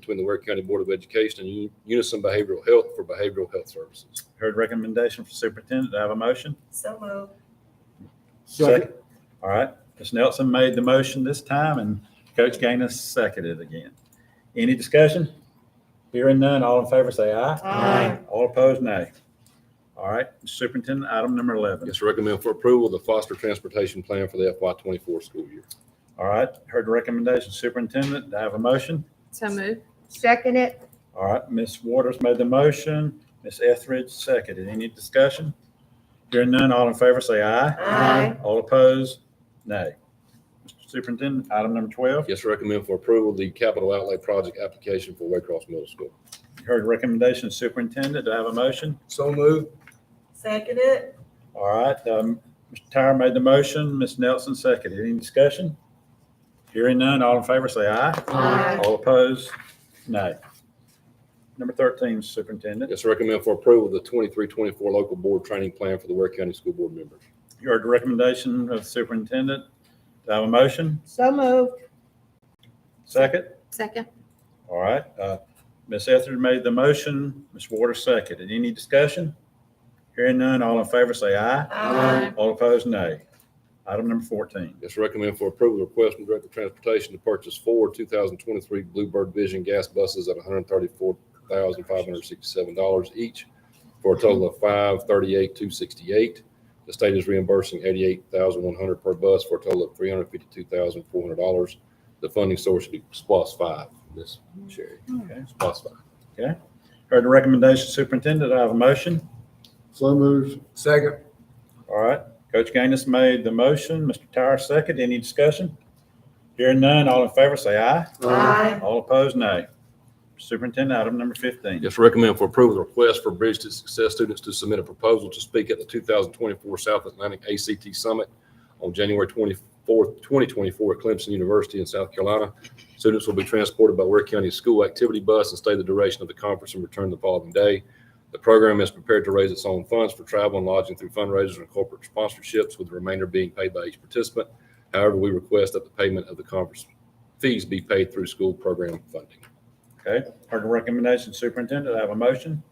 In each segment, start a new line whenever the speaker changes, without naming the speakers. between the Ware County Board of Education and Uni- Unison Behavioral Health for behavioral health services.
Heard recommendation from superintendent. Do I have a motion?
So moved.
Second.
All right. Ms. Nelson made the motion this time and Coach Gaines seconded again. Any discussion? Hearing none, all in favor say aye.
Aye.
All opposed, nay. All right, superintendent, item number 11.
Yes, recommend for approval the foster transportation plan for the FY twenty-four school year.
All right, heard the recommendation superintendent. Do I have a motion?
So move.
Second it.
All right, Ms. Waters made the motion, Ms. Etheridge seconded. Any discussion? Hearing none, all in favor say aye.
Aye.
All opposed, nay. Mr. Superintendent, item number 12,
Yes, recommend for approval the capital outlay project application for Waycross Middle School.
heard recommendation superintendent, do I have a motion?
So moved.
Second it.
All right, um, Mr. Tyra made the motion, Ms. Nelson seconded. Any discussion? Hearing none, all in favor say aye.
Aye.
All opposed, nay. Number 13, superintendent,
Yes, recommend for approval the twenty-three, twenty-four local board training plan for the Ware County School Board members.
you heard the recommendation of superintendent, do I have a motion?
So moved.
Second?
Second.
All right, uh, Ms. Etheridge made the motion, Ms. Waters seconded. Any discussion? Hearing none, all in favor say aye.
Aye.
All opposed, nay. Item number 14.
Yes, recommend for approval request from Director of Transportation to purchase four two thousand twenty-three Bluebird Vision gas buses at one hundred thirty-four thousand five hundred sixty-seven dollars each for a total of five thirty-eight, two sixty-eight. The state is reimbursing eighty-eight thousand one hundred per bus for a total of three hundred fifty-two thousand four hundred dollars. The funding source should be SPOS five, Ms. Sherry.
Okay.
SPOS five.
Heard the recommendation, Superintendent, I have a motion.
So moved. Second.
All right, Coach Gaines made the motion, Mr. Tyra seconded. Any discussion? Hearing none, all in favor say aye.
Aye.
All opposed, nay. Superintendent, item number 15.
Yes, recommend for approval, the request for Bridge to Success students to submit a proposal to speak at the 2024 South Atlantic ACT Summit on January 24th, 2024 at Clemson University in South Carolina. Students will be transported by Ware County School Activity Bus and stay the duration of the conference and return the following day. The program is prepared to raise its own funds for travel and lodging through fundraisers and corporate sponsorships, with the remainder being paid by each participant. However, we request that the payment of the conference fees be paid through school program funding.
Okay, heard the recommendation, Superintendent, I have a motion.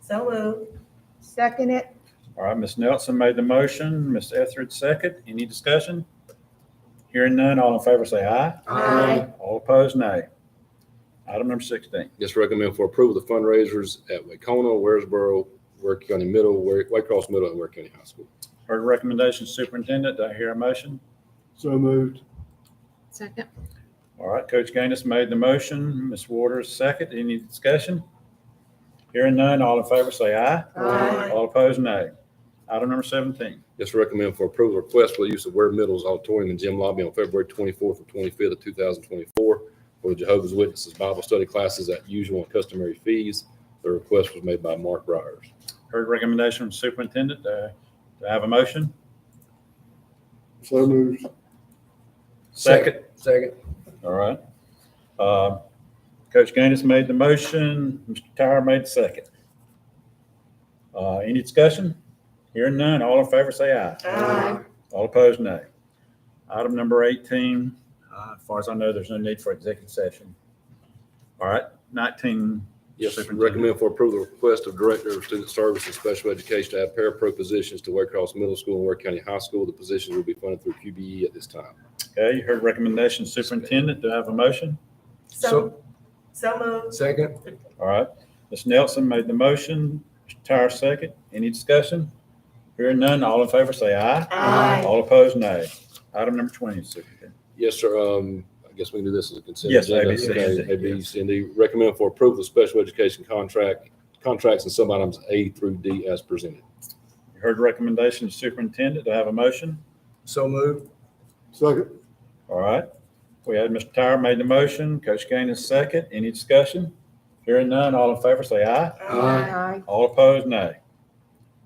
So moved. Second it.
All right, Ms. Nelson made the motion, Ms. Etheridge second. Any discussion? Hearing none, all in favor say aye.
Aye.
All opposed, nay. Item number 16.
Yes, recommend for approval the fundraisers at Wacona, Waresboro, Ware County Middle, Ware- White Cross Middle, and Ware County High School.
Heard the recommendation, Superintendent, do I hear a motion?
So moved.
Second.
All right, Coach Gaines made the motion, Ms. Waters second. Any discussion? Hearing none, all in favor say aye.
Aye.
All opposed, nay. Item number 17.
Yes, recommend for approval request for the use of Ware Middle's auditorium and gym lobby on February 24th and 25th of 2024 for the Jehovah's Witnesses Bible study classes at usual and customary fees. The request was made by Mark Briers.
Heard the recommendation from Superintendent, uh, do I have a motion?
So moved.
Second.
Second.
All right. Uh, Coach Gaines made the motion, Mr. Tyra made the second. Uh, Any discussion? Hearing none, all in favor say aye.
Aye.
All opposed, nay. Item number 18, uh, as far as I know, there's no need for executive session. All right, 19.
Yes,
Superintendent.
recommend for approval the request of Director of Student Services and Special Education to add parapro positions to Ware Cross Middle School and Ware County High School. The positions will be funded through QBE at this time.
Okay, you heard recommendation, Superintendent, do I have a motion?
So, so moved.
Second.
All right, Ms. Nelson made the motion, Mr. Tyra second. Any discussion? Hearing none, all in favor say aye.
Aye.
All opposed, nay. Item number 20, Superintendent.
Yes, sir. Um, I guess we can do this as a consent.
Yes,
agenda.
A, B, C,
Okay,
and D,
A, B, C, and D. Recommend for approval of special education contract, contracts and sub-items A through D as presented.
You heard the recommendation of superintendent. Do I have a motion?
So moved. Second.
All right. We had Mr. Tyra made the motion, Coach Gaines second. Any discussion? Hearing none, all in favor say aye.
Aye.
All opposed, nay.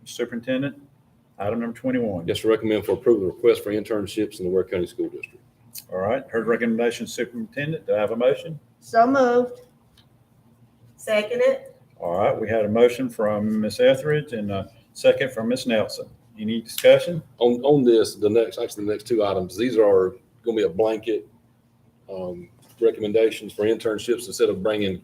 Superintendent, item number 21.
Yes, sir. Recommend for approval of request for internships in the Ware County School District.
All right. Heard recommendation of superintendent. Do I have a motion?
So moved. Second it.
All right. We had a motion from Ms. Etheridge and a second from Ms. Nelson. Any discussion?
On, on this, the next, actually the next two items, these are going to be a blanket, um, recommendations for internships instead of bringing